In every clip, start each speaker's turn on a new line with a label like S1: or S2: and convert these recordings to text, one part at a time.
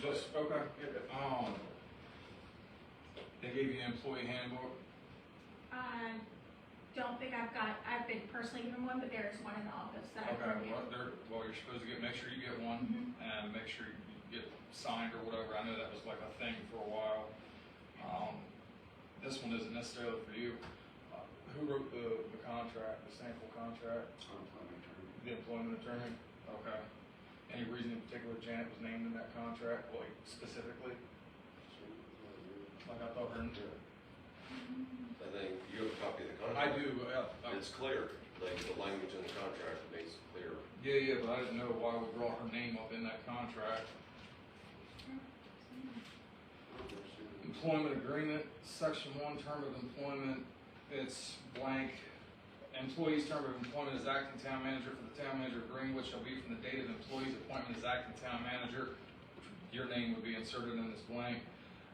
S1: Just, okay. Um, they gave you an employee handbook?
S2: I Um, don't think I've got, I've been personally given one, but there is one in the office that I've
S1: Okay,
S2: reviewed.
S1: well, um, they're, well, you're supposed to get, make sure you get one
S2: Mhm.
S1: and make sure you get signed or whatever. I know that was like a thing for a while. Um, this one isn't necessarily for you. Uh, Who wrote the, the contract, the sample contract?
S3: Unemployment attorney.
S1: The employment attorney? Okay. Any reason in particular Janet was named in that contract, like specifically? Like I thought her,
S4: I think you have a copy of the
S1: I
S4: contract.
S1: do, uh, uh,
S4: It's clear, like the language in the contract makes it clear.
S1: yeah, yeah, but I didn't know why we brought her name up in that contract.
S2: Mm-hmm.
S1: Employment agreement, section one, term of employment, it's blank. Employee's term of employment as acting town manager for the town manager of Greenwood shall be from the date of employee's appointment as acting town manager, your name would be inserted in this blank,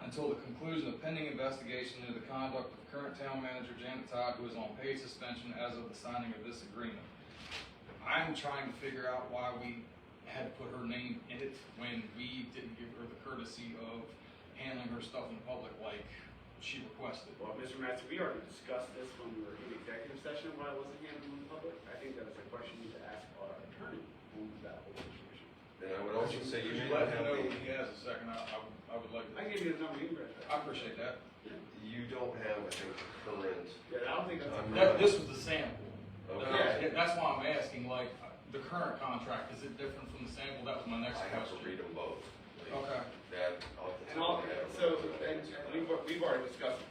S1: until the conclusion of pending investigation into the conduct of current town manager Janet Todd, who is on paid suspension as of the signing of this agreement. I'm trying to figure out why we had put her name in it when we didn't give her the courtesy of handling her stuff in public like she requested.
S3: Well, Mr. Massey, we already discussed this when we were in executive session, why it wasn't handled in public. I think that's a question you need to ask our attorney on that whole situation.
S4: And I would also say you
S1: Could
S4: may
S1: let him
S4: not have
S1: know
S4: the,
S1: when he has a second, I, I would- I would like
S3: I
S1: to.
S3: gave you his number, you can reach
S1: I
S3: out.
S1: appreciate that.
S4: you don't have, I think, the current.
S3: Yeah, I don't think that's.
S4: I'm
S1: That, this was the sample. Uh,
S4: Okay.
S1: That's why I'm asking, like, the current contract, is it different from the sample? That was my next
S4: I have to
S1: question.
S4: read them both. Like,
S1: Okay,
S4: That, off the
S3: And
S4: top
S3: all,
S4: of my head, I
S3: so,
S4: don't know.
S3: and we've, we've already discussed,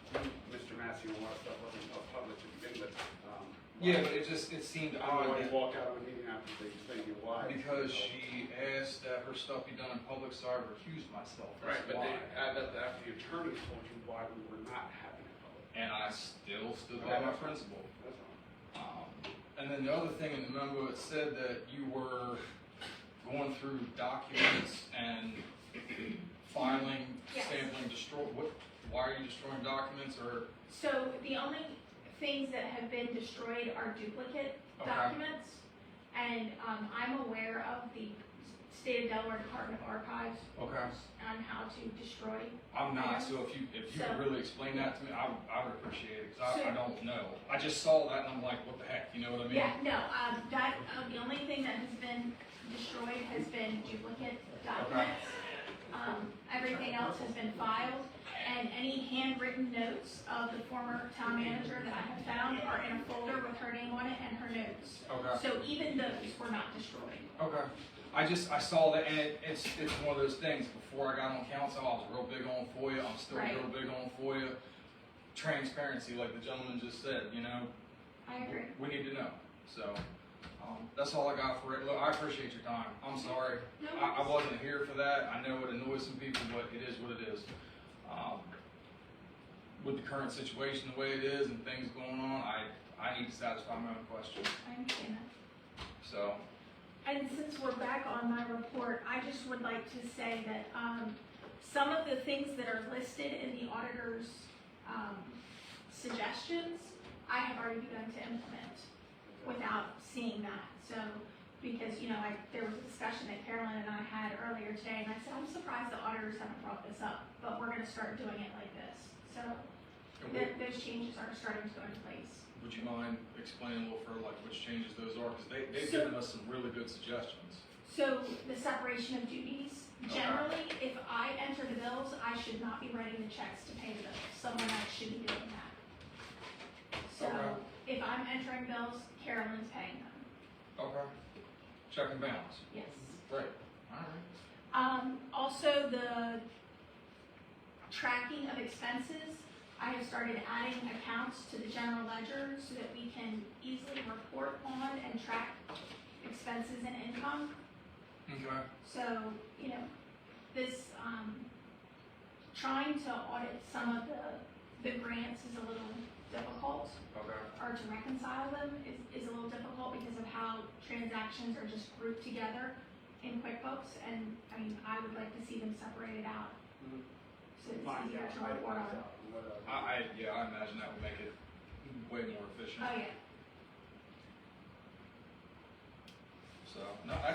S3: Mr. Massey, a lot of stuff wasn't public to begin with. um,
S1: yeah, but it just, it seemed
S3: I don't know
S1: odd
S3: why you
S1: that-
S3: walk out of a meeting after they explain you why.
S1: because she asked that her stuff be done in public, so I recused myself. That's
S3: Right, but they,
S1: why.
S3: uh, that, after the attorney told you why we were not having it public.
S1: And I still stood by my principle.
S3: That's all.
S1: Um, And then the other thing in the memo, it said that you were going through documents and filing,
S2: Yes.
S1: sampling, destroy, what, why are you destroying documents or?
S2: So the only things that have been destroyed are duplicate
S1: Okay.
S2: documents. And, um, I'm aware of the state of Delaware Department of Archives
S1: Okay.
S2: on how to destroy.
S1: I'm not, so if you, if you
S2: So-
S1: could really explain that to me, I, would- I would appreciate it, cause I, I
S2: Sure.
S1: don't know. I just saw that and I'm like, what the heck, you know what I mean?
S2: Yeah, no, um, that, um, the only thing that has been destroyed has been duplicate documents. Um, everything else has been filed, and any handwritten notes of the former town manager that I have found are in a folder with her name on it and her notes.
S1: Okay.
S2: So even those were not destroyed.
S1: Okay. I just I saw that, and it, it's it's one of those things. Before I got on council, I was real big on FOIA. I'm still
S2: Right.
S1: real big on FOIA. Transparency, like the gentleman just said, you know,
S2: I agree.
S1: we need to know. So um, that's all I got for it. Look, I appreciate your time. I'm sorry
S2: No,
S1: I, I wasn't here for that. I know it annoys some people, but it is what it is. Um, with the current situation the way it is and things going on, I I need to satisfy my own question.
S2: I understand that.
S1: So
S2: And since we're back on my report, I just would like to say that, um, some of the things that are listed in the auditor's, um, suggestions, I have already begun to implement without seeing that, so, because, you know, I, there was a discussion that Carolyn and I had earlier today, and I said, I'm surprised the auditors haven't brought this up, but we're gonna start doing it like this, so,
S1: and we-
S2: th- those changes are starting to go into place.
S1: Would you mind explaining a little further, like which changes those are? Because they, they've
S2: So-
S1: given us some really good suggestions.
S2: So the separation of duties,
S1: Okay.
S2: generally, if I enter the bills, I should not be writing the checks to pay the bills. Someone else should be doing that. So
S1: Okay.
S2: if I'm entering bills, Carolyn's paying them,
S1: Okay. Check and balance.
S2: yes.
S1: Right. All right.
S2: Um, also the tracking of expenses, I have started adding accounts to the general ledger so that we can easily report on and track expenses and income.
S1: Okay.
S2: So, you know, this, um, trying to audit some of the, the grants is a little difficult,
S1: Okay.
S2: or to reconcile them is, is a little difficult because of how transactions are just grouped together in QuickBooks, and, I mean, I would like to see them separated out.
S3: Mhm.
S2: So it's
S3: Find
S2: easier
S3: out,
S2: to
S3: find
S2: report on.
S3: out, whatever.
S1: I, I, yeah, I imagine that would make it way more efficient.
S2: Oh, yeah.
S1: So, no, I,